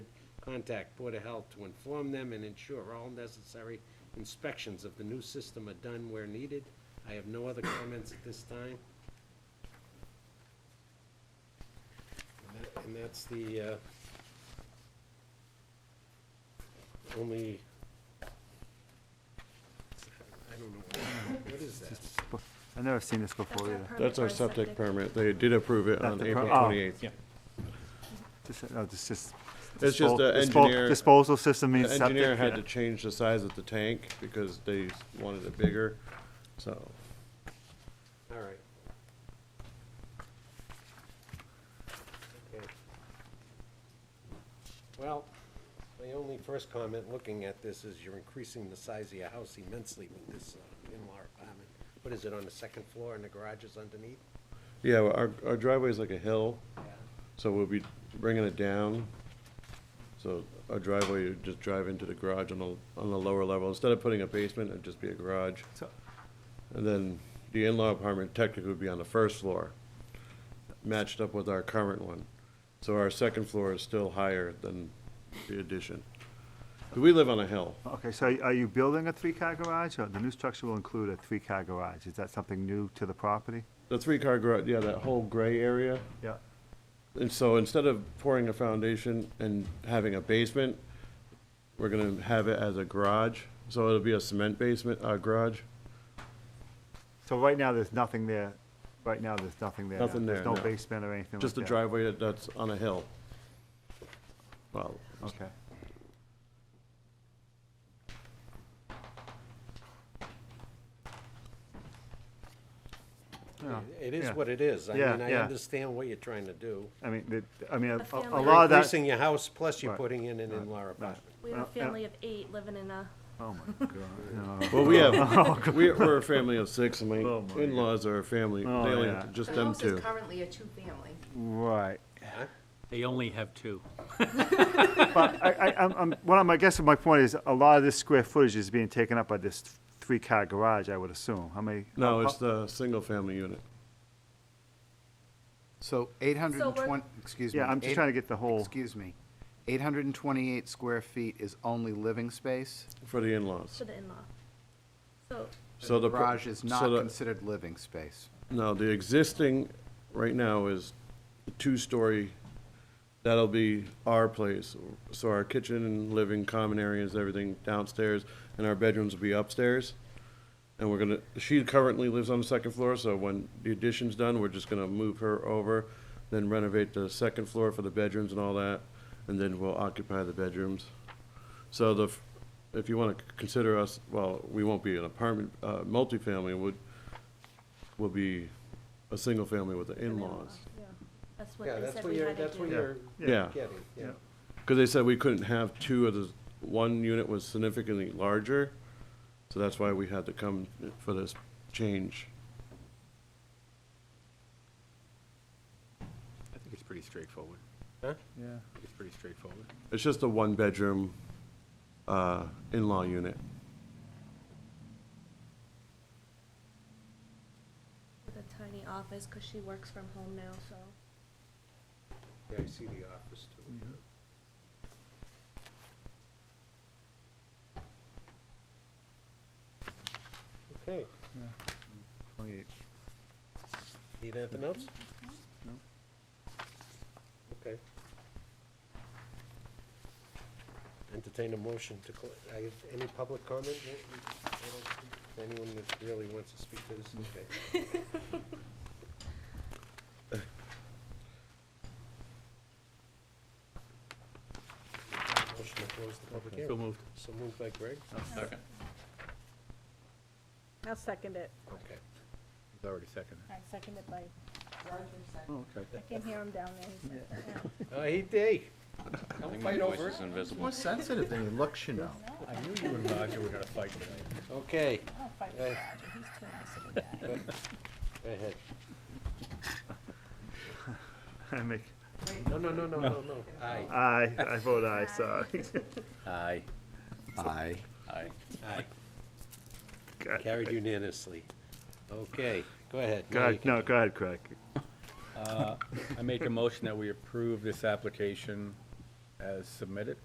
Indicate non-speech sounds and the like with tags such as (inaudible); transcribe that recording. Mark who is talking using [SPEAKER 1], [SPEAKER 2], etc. [SPEAKER 1] contact Board of Health to inform them and ensure all necessary inspections of the new system are done where needed. I have no other comments at this time. And that- And that's the, uh, only, I don't know, what- what is that?
[SPEAKER 2] I've never seen this before
[SPEAKER 3] our
[SPEAKER 2] either.
[SPEAKER 3] permit
[SPEAKER 4] That's our
[SPEAKER 3] for a
[SPEAKER 4] septic permit. They did approve it
[SPEAKER 2] That's
[SPEAKER 4] on
[SPEAKER 2] the per-
[SPEAKER 4] April
[SPEAKER 2] oh.
[SPEAKER 4] 28th.
[SPEAKER 2] Dis- No, this is.
[SPEAKER 4] It's just
[SPEAKER 2] dispos-
[SPEAKER 4] the
[SPEAKER 2] dispo-
[SPEAKER 4] engineer-
[SPEAKER 2] Disposal system means
[SPEAKER 4] The
[SPEAKER 2] septic.
[SPEAKER 4] engineer had
[SPEAKER 2] yeah.
[SPEAKER 4] to change the size of the tank because they wanted it bigger, so.
[SPEAKER 1] All right. Okay. Well, my only first comment, looking at this, is you're increasing the size of your house immensely with this uh, in-law apartment. What is it, on the second floor and the garage is underneath?
[SPEAKER 4] Yeah, our, our driveway is like a hill, so we'll be bringing it down. So our driveway, you just drive into the garage on the, on the lower level. Instead of putting a basement, it'd just be a garage.
[SPEAKER 2] So-
[SPEAKER 4] And then the in-law apartment technically would be on the first floor, matched up with our current one. So our second floor is still higher than the addition. We live on a hill.
[SPEAKER 2] Okay, so are you building a three-car garage, or the new structure will include a three-car garage? Is that something new to the property?
[SPEAKER 4] The three-car garage, yeah, that whole gray area.
[SPEAKER 2] Yeah.
[SPEAKER 4] And so instead of pouring a foundation and having a basement, we're gonna have it as a garage. So it'll be a cement basement, uh, garage.
[SPEAKER 2] So right now, there's nothing there, right now, there's nothing there. now.
[SPEAKER 4] Nothing there,
[SPEAKER 2] There's
[SPEAKER 4] no.
[SPEAKER 2] no basement or anything like that?
[SPEAKER 4] Just a driveway that, that's on a hill. Well,
[SPEAKER 2] Okay. Yeah.
[SPEAKER 1] It is
[SPEAKER 2] Yeah.
[SPEAKER 1] what it is. I
[SPEAKER 2] Yeah,
[SPEAKER 1] mean, I
[SPEAKER 2] yeah.
[SPEAKER 1] understand what you're trying to do.
[SPEAKER 2] I mean, the- I mean, a- a- a
[SPEAKER 3] family.
[SPEAKER 2] lot of Oh, that.
[SPEAKER 1] Increasing your house, plus you're
[SPEAKER 2] Right,
[SPEAKER 1] putting in an in-law
[SPEAKER 2] Right.
[SPEAKER 1] apartment.
[SPEAKER 3] We have a
[SPEAKER 2] Uh, yeah.
[SPEAKER 3] family of eight living in a,
[SPEAKER 2] Oh, my Oh, God, no.
[SPEAKER 4] well,
[SPEAKER 2] (laughs)
[SPEAKER 4] we have, we- we're a family of six, and my
[SPEAKER 2] Oh, my
[SPEAKER 4] in-laws are a family, they
[SPEAKER 2] Oh,
[SPEAKER 4] only,
[SPEAKER 2] yeah.
[SPEAKER 4] just
[SPEAKER 5] The
[SPEAKER 4] them
[SPEAKER 5] house is
[SPEAKER 4] two.
[SPEAKER 5] currently a two-family.
[SPEAKER 2] Right.
[SPEAKER 6] They only have two.
[SPEAKER 2] But I, I, I'm, I'm, what I'm, I guess my point is, a lot of this square footage is being taken up by this three-car garage, I would assume. How many?
[SPEAKER 4] No,
[SPEAKER 2] how-
[SPEAKER 4] it's the single-family unit.
[SPEAKER 7] So 820,
[SPEAKER 3] we're-
[SPEAKER 7] excuse me.
[SPEAKER 2] Yeah, I'm just
[SPEAKER 7] eight-
[SPEAKER 2] trying to get the whole,
[SPEAKER 7] Excuse me. 828 square feet is only living space?
[SPEAKER 4] For the in-laws.
[SPEAKER 3] for the in-law. So,
[SPEAKER 4] So the. pro-
[SPEAKER 7] Garage is not
[SPEAKER 4] so the-
[SPEAKER 7] considered living space.
[SPEAKER 4] No, the existing, right now, is a two-story, that'll be our place. So our kitchen and living, common areas, everything downstairs, and our bedrooms will be upstairs. And we're gonna, she currently lives on the second floor, so when the addition's done, we're just gonna move her over, then renovate the second floor for the bedrooms and all that, and then we'll occupy the bedrooms. So the, f- if you wanna consider us, well, we won't be an apartment, uh, multifamily, would, will be a single family with the in-laws.
[SPEAKER 3] yeah, that's what
[SPEAKER 1] Yeah,
[SPEAKER 3] they
[SPEAKER 1] that's
[SPEAKER 3] said
[SPEAKER 1] what
[SPEAKER 3] we
[SPEAKER 1] you're,
[SPEAKER 3] had to
[SPEAKER 1] that's what
[SPEAKER 3] do.
[SPEAKER 1] you're
[SPEAKER 4] Yeah,
[SPEAKER 1] getting, yeah.
[SPEAKER 4] because they said we couldn't have two of the, one unit was significantly larger, so that's why we had to come for this change.
[SPEAKER 6] I think it's pretty straightforward.
[SPEAKER 1] Huh?
[SPEAKER 2] Yeah.
[SPEAKER 6] I think It's pretty straightforward.
[SPEAKER 4] It's just a one-bedroom, uh, in-law unit.
[SPEAKER 3] With a tiny office, because she works from home now, so.
[SPEAKER 1] Yeah, I see the office too. Okay,
[SPEAKER 2] 28.
[SPEAKER 1] need anything else? Okay. Entertain a motion to, clo- I have any public comment? I don't- Anyone that really wants to speak to this, okay. Motion to close the public
[SPEAKER 6] So
[SPEAKER 1] hearing.
[SPEAKER 6] moved.
[SPEAKER 1] So moved by Greg?
[SPEAKER 6] Second.
[SPEAKER 8] I'll second it.
[SPEAKER 1] Okay.
[SPEAKER 6] It's already seconded.
[SPEAKER 8] I second it by,
[SPEAKER 6] Okay.
[SPEAKER 8] I can hear him down there.
[SPEAKER 1] Oh, he did. Don't fight over it.
[SPEAKER 7] More sensitive than he looks, you know.
[SPEAKER 6] I knew you and Roger were gonna fight tonight.
[SPEAKER 1] Okay,
[SPEAKER 8] Oh, fine.
[SPEAKER 1] Uh,
[SPEAKER 8] He's too nice of a guy.
[SPEAKER 1] go ahead.
[SPEAKER 2] (laughs) I make,
[SPEAKER 1] No, no, no, no, no, no. Aye.
[SPEAKER 2] aye, I vote aye, (laughs) sorry.
[SPEAKER 6] Aye.
[SPEAKER 7] Aye.
[SPEAKER 6] Aye.
[SPEAKER 1] Aye.
[SPEAKER 2] God.
[SPEAKER 1] Carried unanimously. Okay, go ahead. Now you
[SPEAKER 2] God,
[SPEAKER 1] can-
[SPEAKER 2] no, go ahead, Craig.
[SPEAKER 6] I make a motion that we approve this application as submitted.